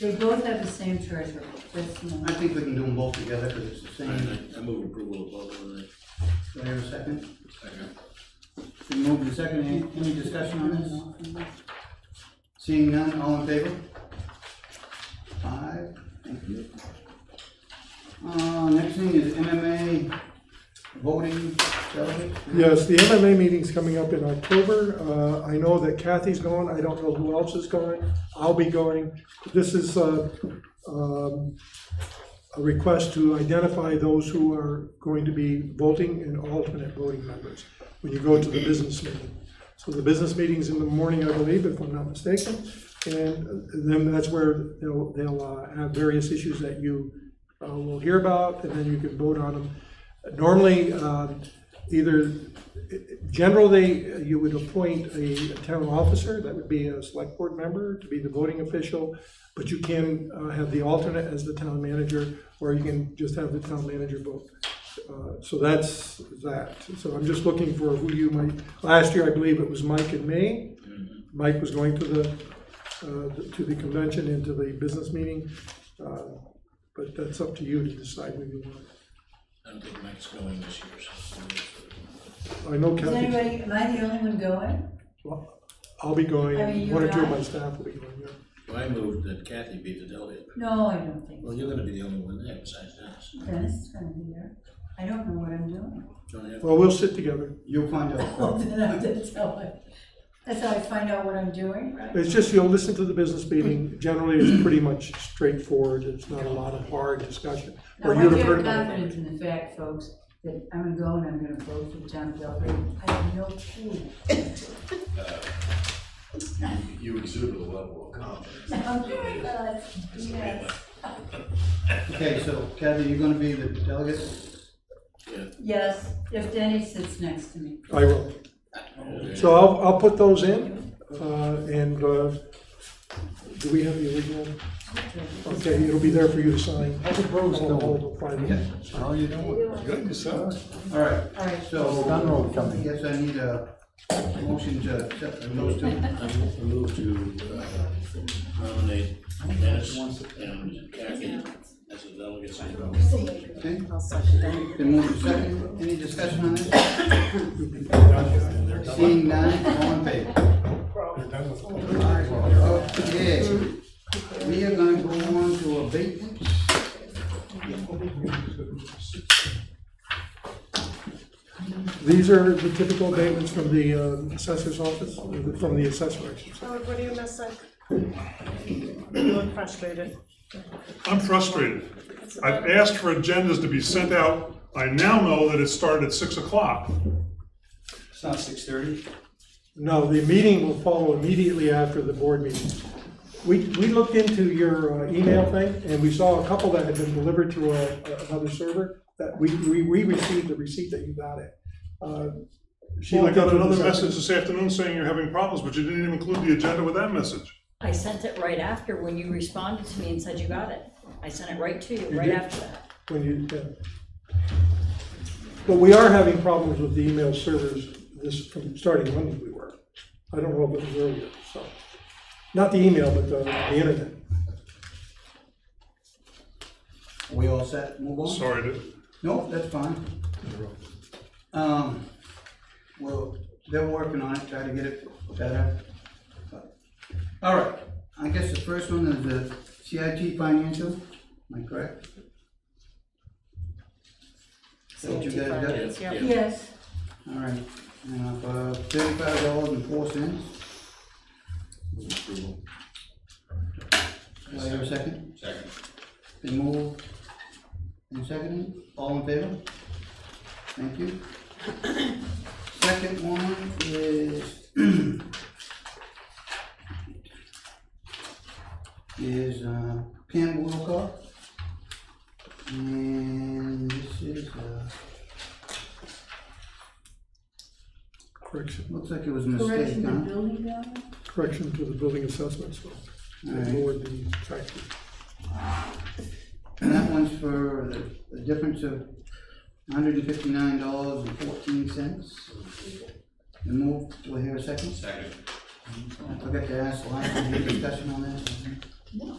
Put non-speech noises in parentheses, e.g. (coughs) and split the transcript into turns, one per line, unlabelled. They both have the same treasurer, that's
I
not.
think we can do them both together because it's the same.
I move approval of both of them.
Do I have a second? Been moved and seconded. Any- Any discussion on this? Seeing none, all in favor? Five, thank you. Uh, next thing is MMA voting delegate.
Yes, the MMA meeting's coming up in October. Uh, I know that Kathy's going, I don't know who else is going, I'll be going. This is uh, um, a request to identify those who are going to be voting and alternate voting members when you go to the business meeting. So the business meeting's in the morning, I believe, if I'm not mistaken, and then that's where they'll, they'll uh, have various issues that you uh, will hear about, and then you can vote on them. Normally, um, either, general, they, uh, you would appoint a town officer, that would be a select board member, to be the voting official, but you can uh, have the alternate as the town manager, or you can just have the town manager vote. Uh, So that's that. So I'm just looking for who you might, last year, I believe it was Mike and me. Mike was going to the, uh, to the convention and to the business meeting, uh, but that's up to you to decide who you want.
I don't think Mike's going this year, so.
I know
Is
Kathy's.
anybody, am I the only one going?
Well, I'll be going,
I mean, you
one or
and
two of
I.
my staff will be going, yeah.
Well, I moved that Kathy be the delegate.
No, I don't think
Well,
so.
you're gonna be the only one there besides us.
Dennis is gonna be there. I don't know what I'm doing. (laughs)
Don't have-
Well, we'll sit together.
You'll find out.
Oh, then I have to tell him. That's how I find out what I'm doing, right?
It's just, you'll listen to the business meeting, generally it's pretty much straightforward, it's not a lot of hard discussion.
Now,
Or
I
you'd have
have
heard about it.
confidence in the fact, folks, that I'm gonna go and I'm gonna vote for John Belgrade. I have no clue. (laughs)
You exhibit a level of confidence.
I'm doing that, Oh yes.
Okay, so Kathy, you're gonna be the delegate?
Yes, if Danny sits next to me.
I will. So I'll, I'll put those in, uh, and, uh, do we have the original? Okay, it'll be there for you to sign.
I suppose
I'll- I'll find it.
How you doing? Good, yourself?
All right,
All right,
so. Dunrobe coming. Yes, I need a motion to accept those two.
I move to uh, nominate Dennis and Kathy as the delegates.
Okay? Then move to second. Any discussion on this? Seeing none, all in favor? Okay. We are gonna go on to abatements.
These are the typical abatements from the uh, assessor's office, or the- from the assessor, I should say.
Howard, what are you missing? You look frustrated.
I'm frustrated. I've asked for agendas to be sent out. I now know that it started at six o'clock.
It's not six thirty?
No, the meeting will follow immediately after the board meeting. We, we looked into your uh, email thing, and we saw a couple that had been delivered to a- another server, that we, we we received the receipt that you got it. Uh, She
Well, I
looked
got
into
another
this-
message this afternoon saying you're having problems, but you didn't even include the agenda with that message.
I sent it right after when you responded to me and said you got it. I sent it right to you, right
did?
after that.
When you, yeah. But we are having problems with the email servers this, from starting Monday we were. I don't know if it was earlier, so, not the email, but the, the internet.
We all set, move on?
Sorry to,
Nope, that's fine. Um, well, they're working on it, try to get it better. All right, I guess the first one is the CIT financial, am I correct? Is that what you guys got?
Yes, yep.
yes,
All right, now, for thirty-five dollars and four cents,
Approval.
do I have a second?
Second.
Been moved and seconded, all in favor? Thank you. (coughs) Second one is (coughs) is uh, Pam Wilcox. And this is, uh,
Correction,
looks like it was a
correction
mistake,
the
huh?
building value?
correction to the building assessment, so,
Alright.
lower the tax rate.
And that one's for the- the difference of hundred and fifty-nine dollars and fourteen cents. Been moved, do I hear a second?
Second.
I forgot to ask, last, any discussion on this?
No.